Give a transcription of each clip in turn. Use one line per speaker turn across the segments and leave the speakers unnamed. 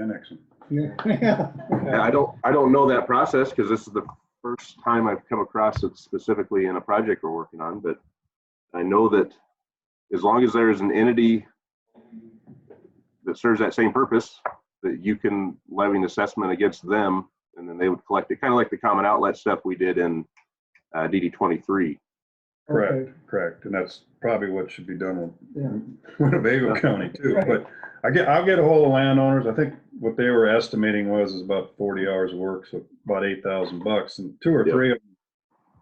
annex them.
Yeah.
Yeah, I don't, I don't know that process because this is the first time I've come across it specifically in a project we're working on, but I know that as long as there is an entity that serves that same purpose, that you can levy an assessment against them and then they would collect it, kind of like the common outlet stuff we did in uh, DD twenty-three.
Correct, correct. And that's probably what should be done
Yeah.
with Winnebago County too. But I get, I'll get a hold of landowners. I think what they were estimating was is about forty hours of work, so about eight thousand bucks and two or
Yep.
three of them.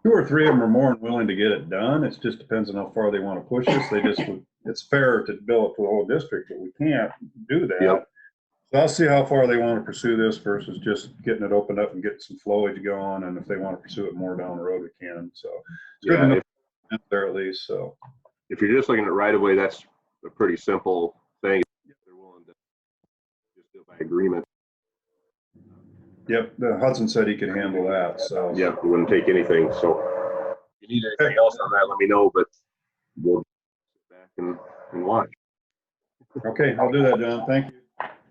Two or three of them are more than willing to get it done. It just depends on how far they want to push us. They just, would- it's fair to bill it for the whole district, but we can't do that.
Yep.
So I'll see how far they want to pursue this versus just getting it opened up and getting some flowage going. And if they want to pursue it more down the road, we can. So it's good
Yeah,
enough
if,
out there at least, so.
if you're just looking at right of way, that's a pretty simple thing. If They're willing to just do it by agreement.
Yep, the Hudson said he could handle that, so.
Yeah, we wouldn't take anything, so. If you need anything else on that, let me know, but we'll sit back and, and watch.
Okay, I'll do that, John, thank you.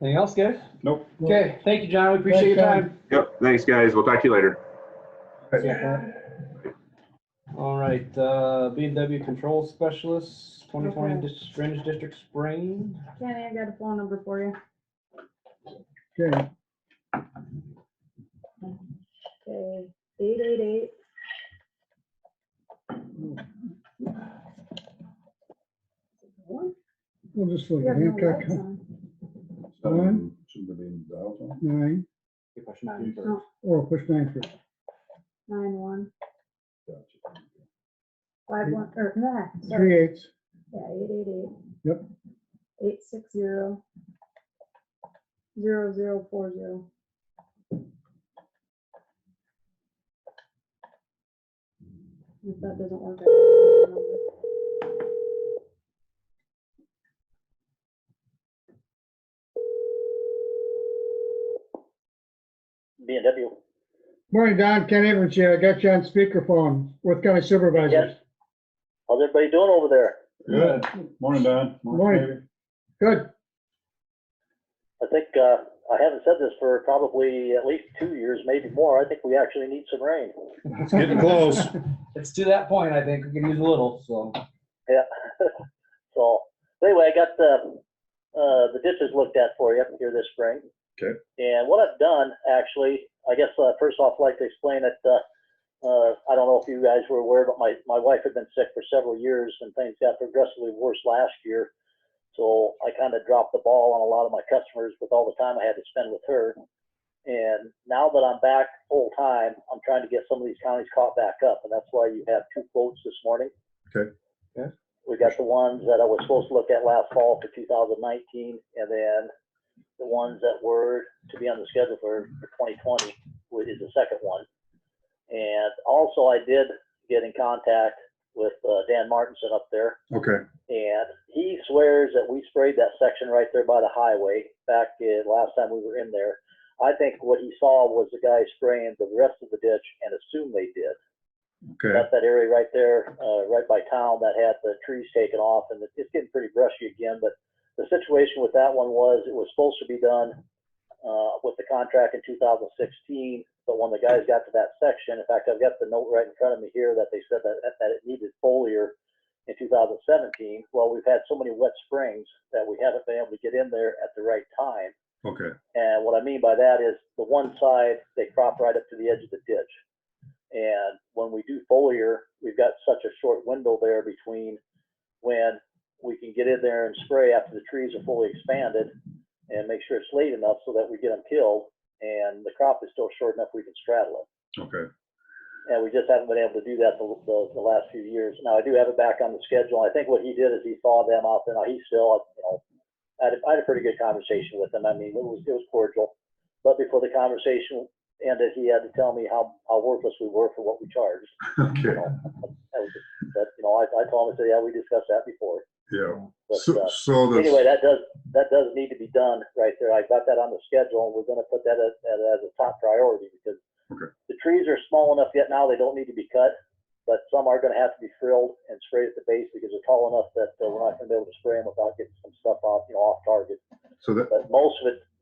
Anything else, guys?
Nope.
Okay, thank you, John. We appreciate your
Thanks,
time.
Yep, thanks, guys. We'll talk to you later.
All right, uh, B and W Control Specialist, twenty twenty Fringe District Spring.
Kenny, I got a phone number for you.
Okay,
Okay, eight eight eight.
we'll just look
You
at
have no
Hancock
lights on.
One.
Shouldn't have been dialed on.
nine,
Good question. Nine first.
or push nine first.
Nine one,
Gotcha.
five one, or, nah, sorry,
Three eights,
yeah, eight eight eight.
Yep.
Eight six zero. Zero zero four zero. If that doesn't work. I can get the number.
B and W.
morning, Don, Ken Evans here, I got you on speakerphone, Worth County Supervisors.
Yes. How's everybody doing over there?
Good, morning, Don.
Morning.
David.
Good,
I think, uh, I haven't said this for probably at least two years, maybe more. I think we actually need some rain.
It's getting close.
It's to that point, I think. We can use a little, so.
Yeah. So, anyway, I got the, uh, the ditches looked at for you here this spring.
Okay.
And what I've done, actually, I guess, uh, first off, I'd like to explain that, uh, uh, I don't know if you guys were aware, but my, my wife had been sick for several years and things got progressively worse last year. So I kind of dropped the ball on a lot of my customers with all the time I had to spend with her. And now that I'm back full time, I'm trying to get some of these counties caught back up. And that's why you have two quotes this morning.
Okay.
Yeah.
We got the ones that I was supposed to look at last fall for 2019 and then the ones that were to be on the schedule for for 2020, which is the second one. And also I did get in contact with uh, Dan Martinson up there
Okay,
and he swears that we sprayed that section right there by the highway back in, last time we were in there. I think what he saw was the guy spraying the rest of the ditch and assumed they did.
okay,
That's that area right there, uh, right by town that had the trees taken off and it's getting pretty brushy again, but the situation with that one was it was supposed to be done, uh, with the contract in two thousand sixteen, but when the guys got to that section, in fact, I've got the note right in front of me here that they said that, that it needed foliar in two thousand seventeen. Well, we've had so many wet springs that we haven't been able to get in there at the right time.
okay,
And what I mean by that is the one side, they crop right up to the edge of the ditch. And when we do foliar, we've got such a short window there between when we can get in there and spray after the trees are fully expanded and make sure it's late enough so that we get them killed and the crop is still short enough we can straddle it.
okay.
And we just haven't been able to do that the, the, the last few years. Now I do have it back on the schedule. I think what he did is he saw them out there. Now he's still, you know, I had, a- I had a pretty good conversation with him. I mean, it was, it was cordial. But before the conversation ended, he had to tell me how, how worthless we were for what we charged. You
Okay,
know, that was, that, you know, I, I told him, I said, yeah, we discussed that before.
yeah.
But,
So,
uh,
so
anyway,
the,
that does, that does need to be done right there. I got that on the schedule and we're gonna put that as, as as a top priority because
Okay.
the trees are small enough yet now, they don't need to be cut, but some are gonna have to be frilled and sprayed at the base because they're tall enough that uh, we're not gonna be able to spray them without getting some stuff off, you know, off target.
so that,
But most of it